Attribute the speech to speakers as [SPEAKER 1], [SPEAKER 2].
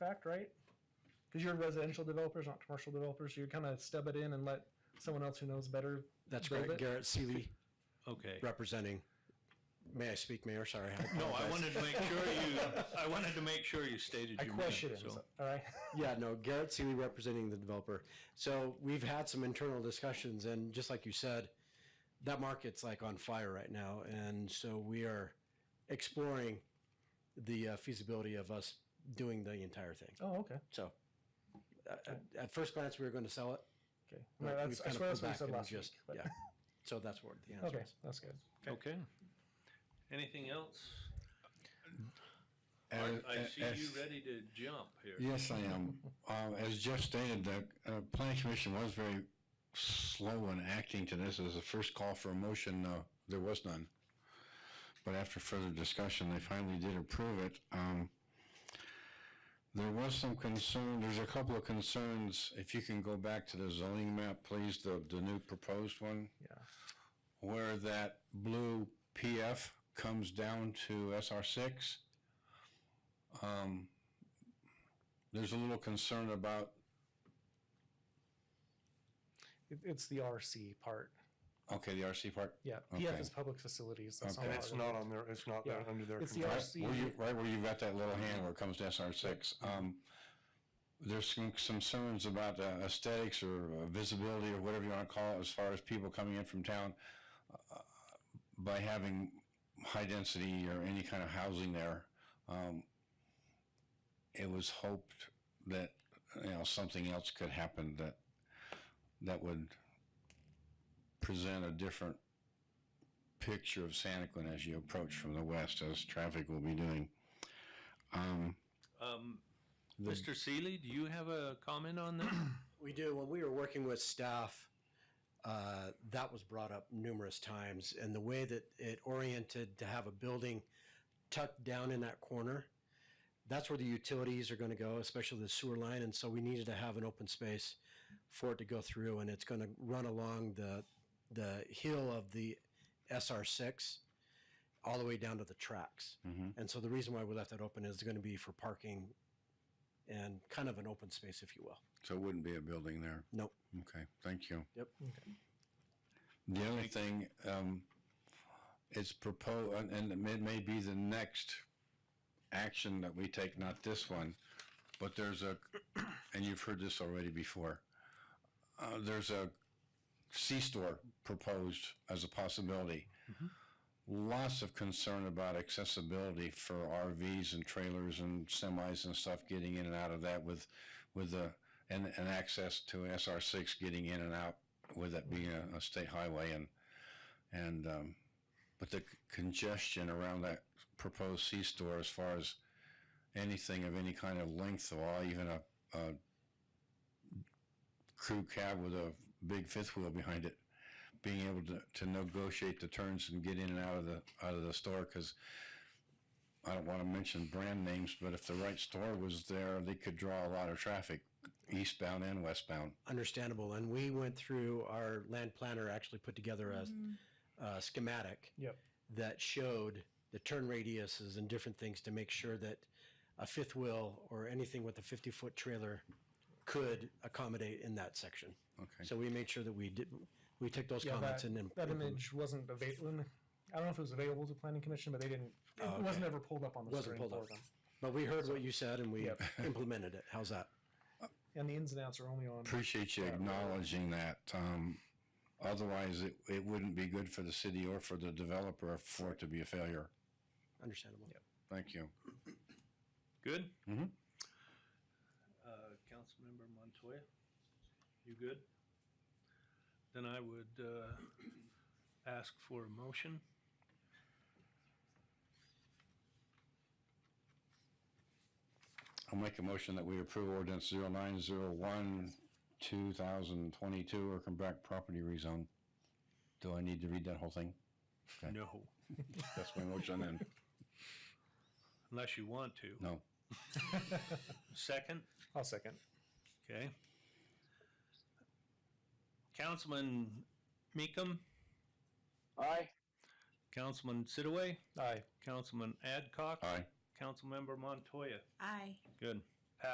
[SPEAKER 1] contract, right? Because you're residential developers, not commercial developers, so you kind of stub it in and let someone else who knows better.
[SPEAKER 2] That's
[SPEAKER 1] Build
[SPEAKER 2] correct.
[SPEAKER 1] it.
[SPEAKER 2] Garrett Seeley
[SPEAKER 3] Okay.
[SPEAKER 2] representing. May I speak, Mayor? Sorry.
[SPEAKER 3] No, I
[SPEAKER 2] apologize.
[SPEAKER 3] wanted to make sure you. I wanted to make sure you stated.
[SPEAKER 1] I
[SPEAKER 3] your
[SPEAKER 1] question
[SPEAKER 3] question.
[SPEAKER 1] it, so- all right?
[SPEAKER 2] Yeah, no, Garrett Seeley representing the developer. So we've had some internal discussions, and just like you said, that market's like on fire right now, and so we are exploring the uh, feasibility of us doing the entire thing.
[SPEAKER 1] Oh, okay,
[SPEAKER 2] So, uh, at, at first glance, we were going to sell it.
[SPEAKER 1] okay.
[SPEAKER 2] but
[SPEAKER 1] No,
[SPEAKER 2] we've
[SPEAKER 1] that's, I
[SPEAKER 2] kinda
[SPEAKER 1] swear that's what
[SPEAKER 2] pulled
[SPEAKER 1] you said
[SPEAKER 2] back and
[SPEAKER 1] last week.
[SPEAKER 2] just-
[SPEAKER 1] but-
[SPEAKER 2] Yeah. So that's what the answer
[SPEAKER 1] Okay,
[SPEAKER 2] is.
[SPEAKER 1] that's good.
[SPEAKER 3] Okay. Anything else?
[SPEAKER 4] As-
[SPEAKER 3] I, I see
[SPEAKER 4] as-
[SPEAKER 3] you ready to jump here.
[SPEAKER 4] Yes, I am. Uh, as Jeff stated, the uh, planning commission was very slow in acting to this. As the first call for a motion, uh, there was none. But after further discussion, they finally did approve it. Um, there was some concern. There's a couple of concerns. If you can go back to the zoning map, please, the the new proposed one.
[SPEAKER 1] Yeah.
[SPEAKER 4] Where that blue PF comes down to SR six. Um, there's a little concern about,
[SPEAKER 1] It, it's the RC part.
[SPEAKER 4] okay, the RC part.
[SPEAKER 1] Yeah, PF
[SPEAKER 4] Okay.
[SPEAKER 1] is public facilities. That's
[SPEAKER 4] Okay.
[SPEAKER 1] not
[SPEAKER 5] It's
[SPEAKER 1] our-
[SPEAKER 5] not on their, it's not
[SPEAKER 1] Yeah.
[SPEAKER 5] under their
[SPEAKER 1] It's the
[SPEAKER 5] control.
[SPEAKER 4] Right
[SPEAKER 1] RC.
[SPEAKER 4] where you, right where you've got that little hand where it comes to SR six. Um, there's some, some concerns about uh, aesthetics or uh, visibility or whatever you want to call it, as far as people coming in from town uh, by having high density or any kind of housing there. Um, it was hoped that, you know, something else could happen that, that would present a different picture of Santaquin as you approach from the west, as traffic will be doing. Um,
[SPEAKER 3] Um,
[SPEAKER 4] the-
[SPEAKER 3] Mr. Seeley, do you have a comment on that?
[SPEAKER 2] We do. When we were working with staff, uh, that was brought up numerous times. And the way that it oriented to have a building tucked down in that corner, that's where the utilities are going to go, especially the sewer line. And so we needed to have an open space for it to go through. And it's going to run along the, the hill of the SR6 all the way down to the tracks.
[SPEAKER 4] Mhm.
[SPEAKER 2] And so the reason why we left that open is going to be for parking and kind of an open space, if you will.
[SPEAKER 4] So it wouldn't be a building there?
[SPEAKER 2] Nope.
[SPEAKER 4] Okay, thank you.
[SPEAKER 2] Yep.
[SPEAKER 4] The other thing, um, it's proposed, and and it may be the next action that we take, not this one, but there's a, and you've heard this already before, uh, there's a C-store proposed as a possibility.
[SPEAKER 2] Mm-hmm.
[SPEAKER 4] Lots of concern about accessibility for RVs and trailers and semis and stuff getting in and out of that with, with the, and, and access to an SR six getting in and out with it being a, a state highway and, and, um, but the congestion around that proposed C-store as far as anything of any kind of length or even a, a crew cab with a big fifth wheel behind it, being able to, to negotiate the turns and get in and out of the, out of the store, cause I don't wanna mention brand names, but if the right store was there, they could draw a lot of traffic, eastbound and westbound.
[SPEAKER 2] understandable. And we went through our land planner actually put together a, a schematic
[SPEAKER 1] Yep.
[SPEAKER 2] that showed the turn radiuses and different things to make sure that a fifth wheel or anything with a 50 foot trailer could accommodate in that section.
[SPEAKER 4] Okay.
[SPEAKER 2] So we made sure that we did, we took those
[SPEAKER 1] Yeah,
[SPEAKER 2] comments
[SPEAKER 1] that,
[SPEAKER 2] and then
[SPEAKER 1] that image wasn't available. I don't know if it was available to planning commission, but they didn't. It
[SPEAKER 2] Oh,
[SPEAKER 1] wasn't ever pulled up on the
[SPEAKER 2] Wasn't
[SPEAKER 1] screen
[SPEAKER 2] pulled
[SPEAKER 1] for
[SPEAKER 2] up.
[SPEAKER 1] them.
[SPEAKER 2] But we heard what you said and we
[SPEAKER 1] Yep.
[SPEAKER 2] implemented it. How's that?
[SPEAKER 1] And the ins and outs are only on.
[SPEAKER 4] Appreciate you
[SPEAKER 1] Yeah, really.
[SPEAKER 4] acknowledging that. Um, otherwise, it, it wouldn't be good for the city or for the developer for it to be a failure.
[SPEAKER 2] Understandable.
[SPEAKER 4] Thank you.
[SPEAKER 3] Good?
[SPEAKER 4] Mhm.
[SPEAKER 3] Uh, Councilmember Montoya, you good? Then I would, uh, ask for a motion.
[SPEAKER 4] I'll make a motion that we approve ordinance zero nine zero one, two thousand twenty-two, Erkenbach property rezone. Do I need to read that whole thing? Okay.
[SPEAKER 3] No,
[SPEAKER 4] That's my motion then.
[SPEAKER 3] unless you want to.
[SPEAKER 4] No.
[SPEAKER 3] Second?
[SPEAKER 1] I'll second.
[SPEAKER 3] Okay. Councilman Meekum?
[SPEAKER 6] Aye.
[SPEAKER 3] Councilman Sitaway?
[SPEAKER 1] Aye.
[SPEAKER 3] Councilman Adcock?
[SPEAKER 4] Aye.
[SPEAKER 3] Councilmember Montoya?
[SPEAKER 7] Aye.
[SPEAKER 3] Good.